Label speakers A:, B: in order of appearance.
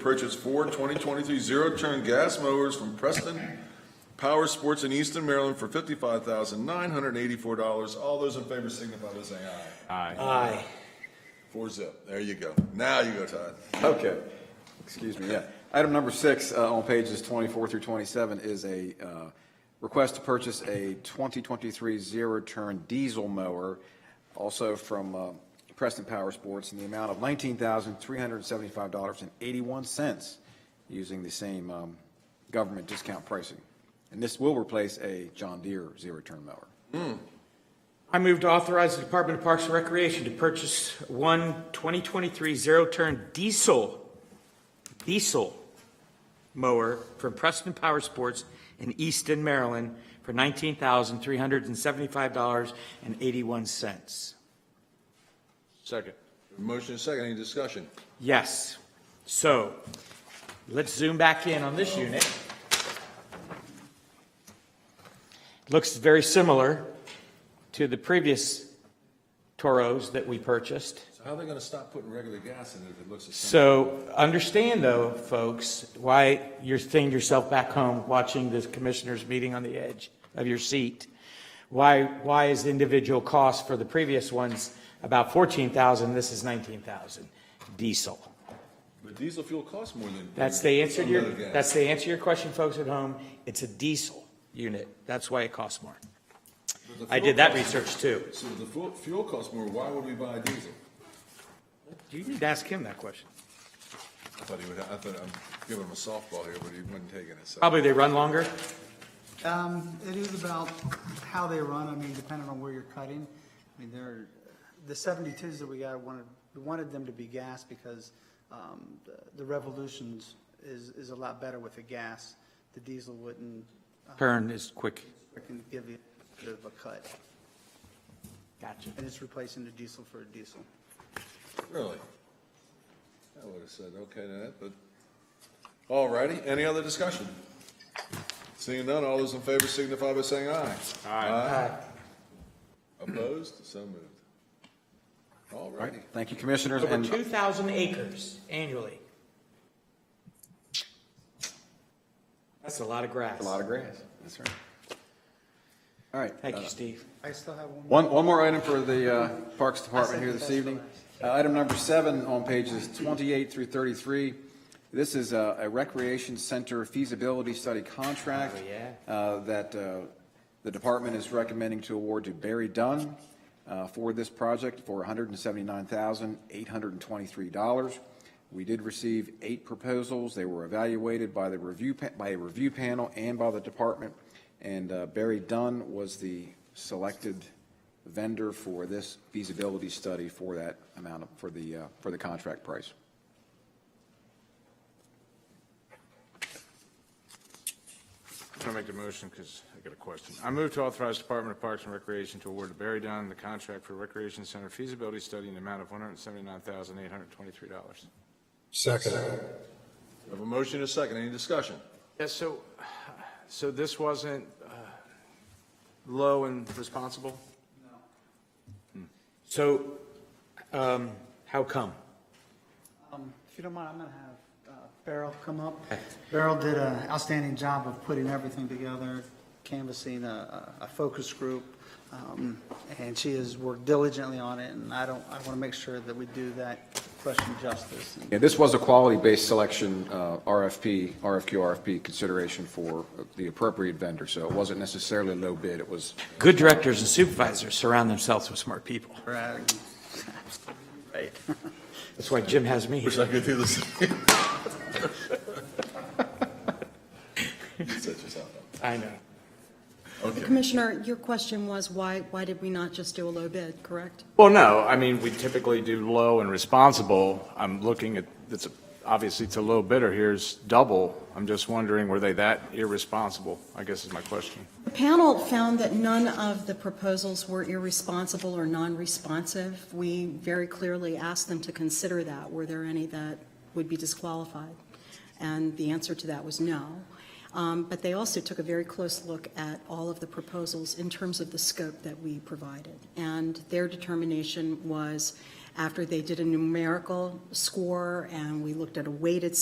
A: Purchase four 2023 zero-turn gas mowers from Preston Power Sports in Easton, Maryland for $55,984. All those in favor signify by saying aye.
B: Aye.
A: Four zip. There you go. Now you go, Todd.
C: Okay, excuse me, yeah. Item number six uh, on pages 24 through 27 is a uh, request to purchase a 2023 zero-turn diesel mower, also from uh, Preston Power Sports, in the amount of $19,375.81, using the same um, government discount pricing. And this will replace a John Deere zero-turn mower.
B: I move to authorize the Department of Parks and Recreation to purchase one 2023 zero-turn diesel, diesel mower from Preston Power Sports in Easton, Maryland for $19,375.81.
D: Second.
A: Motion is second. Any discussion?
B: Yes. So let's zoom back in on this unit. Looks very similar to the previous Toros that we purchased.
A: So how are they going to stop putting regular gas in it if it looks the same?
B: So understand though, folks, why you're seeing yourself back home watching this commissioners meeting on the edge of your seat. Why, why is the individual cost for the previous ones about 14,000? This is 19,000 diesel.
A: But diesel fuel costs more than.
B: That's the answer to your,
A: Another gas.
B: that's the answer to your question, folks at home. It's a diesel unit. That's why it costs more.
A: But the
B: I
A: fuel
B: did that
A: costs-
B: research too.
A: So if the fuel, fuel costs more, why would we buy diesel?
B: You need to ask him that question.
A: I thought he would, I thought, I'm giving him a softball here, but he wasn't taking it, so.
B: Probably they run longer.
E: Um, it is about how they run, I mean, depending on where you're cutting. I mean, there, the seventy-twos that we got, wanted, we wanted them to be gas because, um, the- the Revolutions is, is a lot better with the gas. The diesel wouldn't,
B: Turn is quick.
E: freaking give you a bit of a cut,
B: Gotcha.
E: and it's replacing the diesel for a diesel.
A: Really? I would have said, okay to that, but, all righty, any other discussion? Seeing none, all those in favor signify by saying aye. Aye. Opposed, so moved. All righty,
C: Thank you, Commissioners.
B: Over
C: and-
B: 2,000 acres annually. That's a lot of grass.
C: A lot of grass, that's right. All right.
B: Thank you, Steve.
E: I still have one.
C: One,
E: more.
C: one more item for the uh, Parks Department here this evening. Uh, Item number seven on pages 28 through 33. This is uh, a recreation center feasibility study contract
B: Oh, yeah.
C: uh, that uh, the department is recommending to award to Barry Dunn uh, for this project for $179,823. We did receive eight proposals. They were evaluated by the review, pa- by a review panel and by the department, and uh, Barry Dunn was the selected vendor for this feasibility study for that amount, of for the, uh, for the contract price.
D: I'm gonna make the motion because I got a question. I move to authorize Department of Parks and Recreation to award to Barry Dunn the contract for Recreation Center feasibility study in the amount of one hundred seventy-nine thousand, eight hundred twenty-three dollars.
F: Second.
A: we have a motion and a second, any discussion?
D: Yeah, so, so this wasn't, uh, low and responsible?
B: So, um, how come?
E: Um, If you don't mind, I'm going to have uh, Beryl come up. Beryl did an outstanding job of putting everything together, canvassing a, a a focus group, um, and she has worked diligently on it, and I don't, I want to make sure that we do that question justice.
C: Yeah, this was a quality-based selection, uh, RFP, RFQ, RFP consideration for the appropriate vendor, so it wasn't necessarily low bid, it was
B: Good directors and supervisors surround themselves with smart people.
E: Right. Right.
B: That's why Jim has me.
A: Wish I could do this. Set yourself up.
B: I know.
A: Okay,
G: Commissioner, your question was why, why did we not just do a low bid, correct?
D: Well, no, I mean, we typically do low and responsible. I'm looking at, it's, obviously it's a low bidder here's double. I'm just wondering, were they that irresponsible? I guess is my question.
G: The panel found that none of the proposals were irresponsible or non-responsive. We very clearly asked them to consider that. Were there any that would be disqualified? And the answer to that was no. Um, But they also took a very close look at all of the proposals in terms of the scope that we provided. And their determination was, after they did a numerical score and we looked at a weighted